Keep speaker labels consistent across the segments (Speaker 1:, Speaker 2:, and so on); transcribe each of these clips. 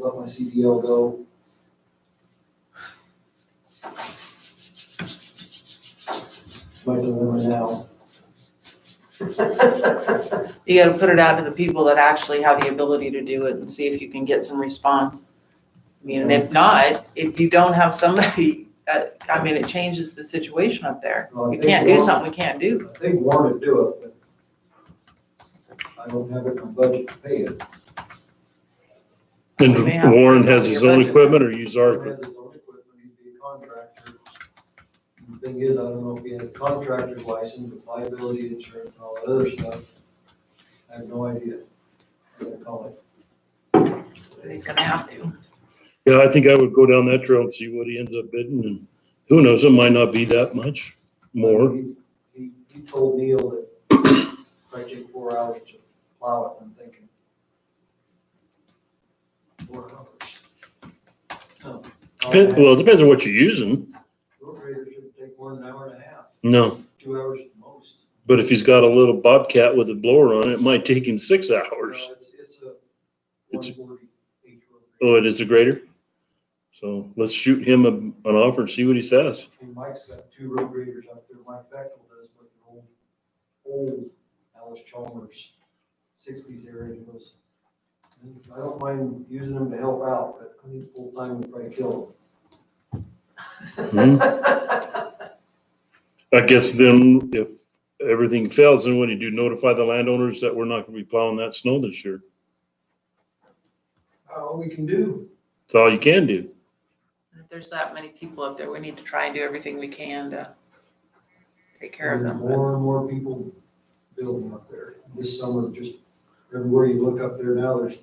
Speaker 1: let my CDL go. My dilemma now,
Speaker 2: You gotta put it out to the people that actually have the ability to do it and see if you can get some response. I mean, and if not, if you don't have somebody, uh, I mean, it changes the situation up there.
Speaker 1: Well, I
Speaker 2: We
Speaker 1: think
Speaker 2: can't do
Speaker 1: we're-
Speaker 2: something we can't do.
Speaker 1: they want to do it, but I don't have it in my budget to pay it.
Speaker 2: We may have
Speaker 3: And
Speaker 2: to
Speaker 3: Warren
Speaker 2: look at
Speaker 3: has his
Speaker 2: your
Speaker 3: own
Speaker 2: budget.
Speaker 3: equipment or use
Speaker 1: He
Speaker 3: our
Speaker 1: has
Speaker 3: equipment?
Speaker 1: his own equipment, he'd be a contractor. The Thing is, I don't know if he has a contractor's license, with liability insurance, and all that other stuff. I have no idea. I'm gonna call it.
Speaker 2: He's gonna have to.
Speaker 3: Yeah, I think I would go down that road and see what he ends up bidding and who knows, it might not be that much more.
Speaker 1: He- He, he told Neil that I take four hours to plow it, and I'm thinking. Four hours. Oh,
Speaker 3: Depend- Well, it depends on what you're using.
Speaker 1: Road grader should take more than an hour and a half,
Speaker 3: No,
Speaker 1: two hours at most.
Speaker 3: but if he's got a little Bobcat with a blower on it, it might take him six hours.
Speaker 1: No, It's, it's a
Speaker 3: It's-
Speaker 1: one forty H road grader.
Speaker 3: Oh, it is a grader? So let's shoot him a- an offer and see what he says.
Speaker 1: And Mike's got two road graders out there, Mike Bechtel does, but the old, old Alice Chalmers sixties era he was. I don't mind using them to help out, but I think full-time would probably kill
Speaker 3: Hmm. I guess then if everything fails, then what do you do? Notify the landowners that we're not gonna be plowing that snow this year?
Speaker 1: them. All we can do.
Speaker 3: That's all you can do.
Speaker 2: And If there's that many people up there, we need to try and do everything we can to take care of them. but-
Speaker 1: More and more people building up there. This summer, just everywhere you look up there now, there's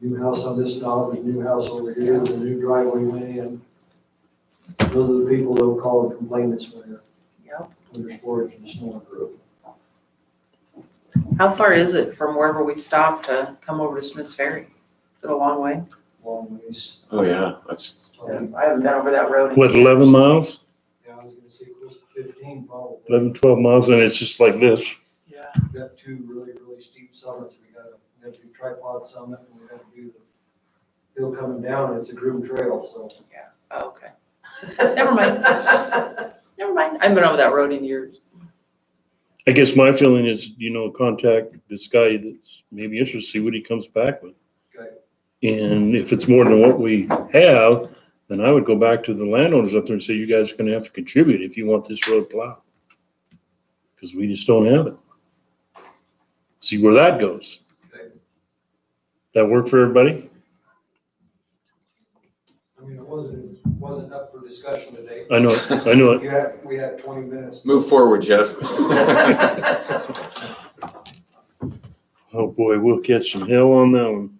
Speaker 1: new house on this dog, there's new house over here, there's a new driveway went in. Those are the people that'll call and complain this winter.
Speaker 2: Yep.
Speaker 1: under storage and snow group.
Speaker 2: How far is it from wherever we stopped to come over to Smith's Ferry? Is it a long way?
Speaker 1: long ways.
Speaker 4: Oh, yeah, that's,
Speaker 1: Um,
Speaker 2: I haven't been over that road. in
Speaker 3: What,
Speaker 2: years.
Speaker 3: eleven miles?
Speaker 1: Yeah, I was gonna say close to fifteen probably.
Speaker 3: 11, 12 miles, and it's just like this.
Speaker 2: Yeah.
Speaker 1: We've got two really, really steep summits. We gotta, we have to do tripod summit and we gotta do the hill coming down and it's a groomed trail, so.
Speaker 2: Oh, okay. Never mind. Never mind. I've been over that road in years.
Speaker 3: I guess my feeling is, you know, contact this guy that's maybe interested, see what he comes back with.
Speaker 1: Okay.
Speaker 3: And if it's more than what we have, then I would go back to the landowners up there and say, you guys are gonna have to contribute if you want this road plowed. Because we just don't have it. See where that goes.
Speaker 1: Okay.
Speaker 3: That work for everybody?
Speaker 1: I mean, it wasn't, wasn't up for discussion today.
Speaker 3: I know, it. I know it.
Speaker 1: You had, we had twenty minutes.
Speaker 4: move forward, Jeff.
Speaker 3: Oh, boy, we'll catch some hell on that one.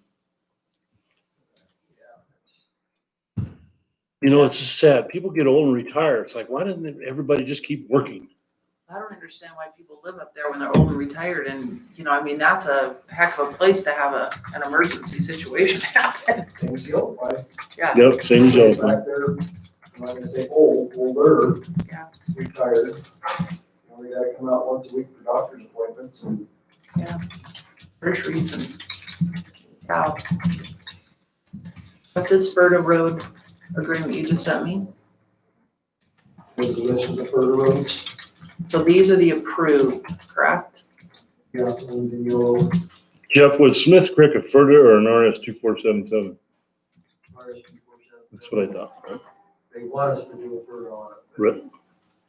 Speaker 3: You know, it's just sad. People get old and retire. It's like, why doesn't everybody just keep working?
Speaker 2: I don't understand why people live up there when they're old and retired and, you know, I mean, that's a heck of a place to have a, an emergency situation happen.
Speaker 1: Things the old life.
Speaker 3: Yep, same as old.
Speaker 1: Back there, I'm not gonna say old, older.
Speaker 2: Yeah.
Speaker 1: Retired. And we gotta come out once a week for doctor's appointments and
Speaker 2: Retreats and, wow. But this Ferta Road agreement you just sent me,
Speaker 1: was the list of the further roads.
Speaker 2: so these are the approved, correct?
Speaker 1: Yeah, and then you'll
Speaker 3: Jeff, was Smith Creek a further or an RS two four seven seven? That's what I thought.
Speaker 1: They want us to do a fur on it. but
Speaker 3: Right.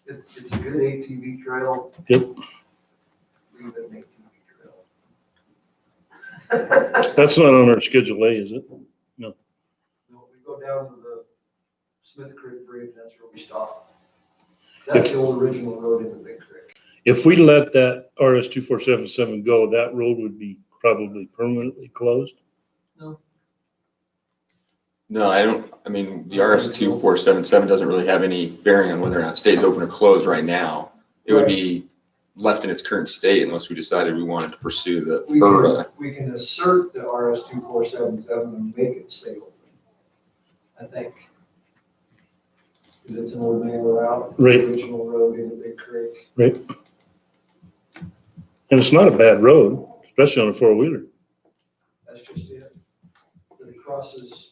Speaker 1: It, it's a good ATV trail.
Speaker 3: Yep.
Speaker 1: Leave it an ATV trail.
Speaker 3: That's not on our schedule A, is it?
Speaker 1: No, We go down to the Smith Creek Bridge, that's where we stop. That's the old original road in the Big Creek.
Speaker 3: If we let that RS two four seven seven go, that road would be probably permanently closed.
Speaker 4: No, I don't, I mean, the RS two four seven seven doesn't really have any bearing on whether or not it stays open or closed right now. It would be left in its current state unless we decided we wanted to pursue the
Speaker 1: We can,
Speaker 4: FERDA.
Speaker 1: we can assert the RS two four seven seven and make it stay open. I think. 'Cause it's an old man route. it's the
Speaker 3: Right.
Speaker 1: Original road in the Big Creek.
Speaker 3: And it's not a bad road, especially on a four wheeler.
Speaker 1: That's just it. But it crosses